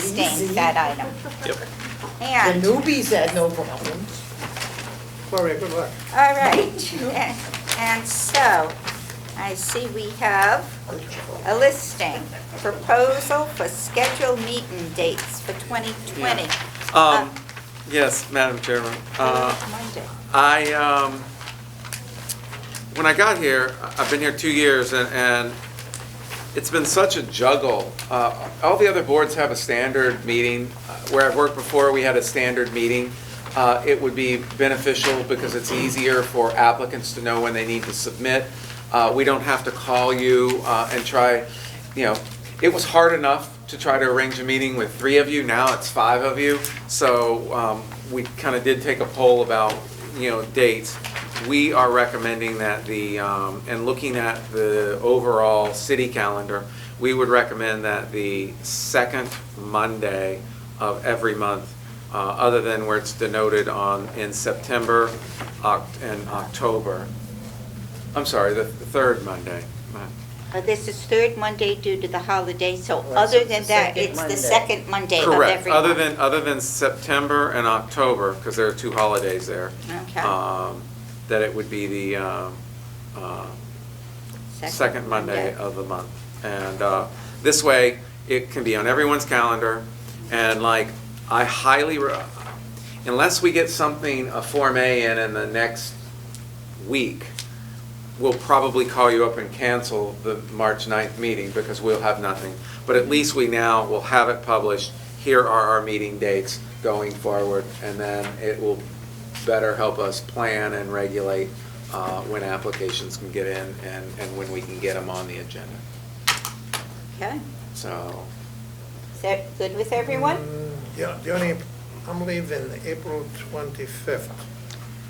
abstain that item. Yep. And, The newbies had no problem. Correct, correct. all right, and- and so, I see we have a listing, proposal for scheduled meeting dates for 2020. Um, yes, Madam Chairman. Uh, Monday. I, um, when I got here, I- I've been here two years, and, and it's been such a juggle. Uh, all the other boards have a standard meeting. Uh, Where I've worked before, we had a standard meeting. Uh, it would be beneficial because it's easier for applicants to know when they need to submit. Uh, we don't have to call you, uh, and try, you know, it was hard enough to try to arrange a meeting with three of you, now it's five of you. So, um, we kind of did take a poll about, you know, dates, we are recommending that the, um, and looking at the overall city calendar, we would recommend that the second Monday of every month, uh, other than where it's denoted on, in September Oc- and October. I'm sorry, the the third Monday. Uh, This is third Monday due to the holiday, so Right, so other it's than the that, second it's the Monday. second Monday of every month. Correct, other than, other than September and October, because there are two holidays there. Okay. um, That it would be the, um, uh, second Monday of the month. And uh, this way, it can be on everyone's calendar, and like, I highly, re- unless we get something, a Form A in in the next week, we'll probably call you up and cancel the March 9th meeting, because we'll have nothing. But at least we now will have it published, here are our meeting dates going forward, and then it will better help us plan and regulate uh, when applications can get in and, and when we can get them on the agenda. Okay, So, is that good with Mm, everyone? Yeah, the only, I'm leaving April 25th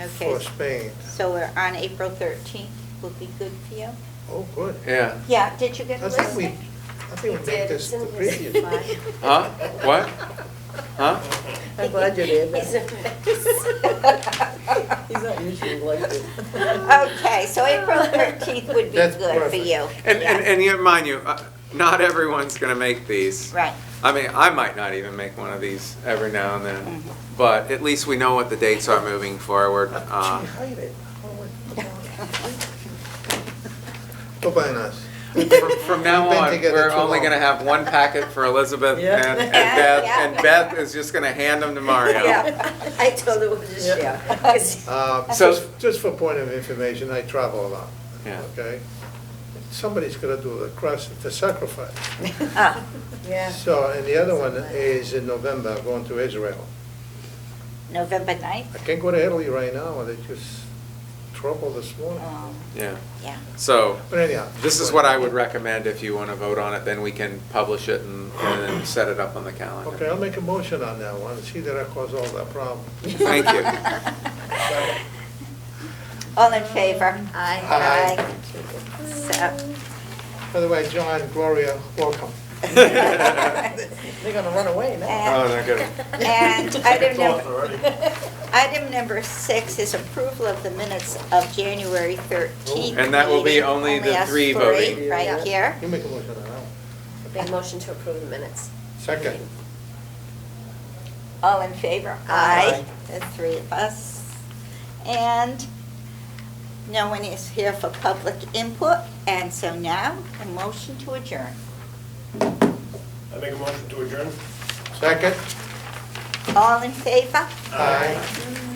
Okay, for Spain. so we're on April 13th, will be good for you? Oh, good. yeah, Yeah, did you get I the think we, listing? I think we made did, this the it's in his previous. file. huh, what? Huh? I'm glad you did It's that. He's not usually like this. Okay, so April 13th would be That's good for perfect. you. And, Yeah, and, and yet, mind you, uh, not everyone's gonna make these. Right, I mean, I might not even make one of these every now and then, but at least we know what the dates are moving forward. Ah, Uh, She hide it. Oh, my God. Goodbye, Nas. From from now We've been on, together we're too only long. gonna have one packet for Elizabeth Yeah. and and Yeah, Beth, yeah. and Beth is just gonna hand them to Mario. Yeah, I told her we'll just share. 'cause Uh, So- Just, just for point of information, I travel a lot, Yeah. okay? Somebody's gonna do the cross, the sacrifice. Uh, Yeah. So, and the other one is in November, going to Israel. November 9th? I can't go to Italy right now, they just trouble this morning. Um, Yeah, Yeah, so But anyhow. this is what I would recommend if you wanna vote on it, then we can publish it and, and then set it up on the calendar. Okay, I'll make a motion on that one, see that I caused all that problem. Thank you. Um, all in favor? Aye. Aye. So, By the way, John, Gloria, welcome. They're gonna run away now. Oh, and- no kidding. And item number, item number six is approval of the minutes of January 13th. And that will be meeting. only the us three three voting. Right Yeah. here. You make a motion on that one. Big motion to approve the minutes. Second. All in favor? Aye. The three of us. And no one is here for public input, and so now, a motion to adjourn. I make a motion to adjourn. Second? All in favor? Aye.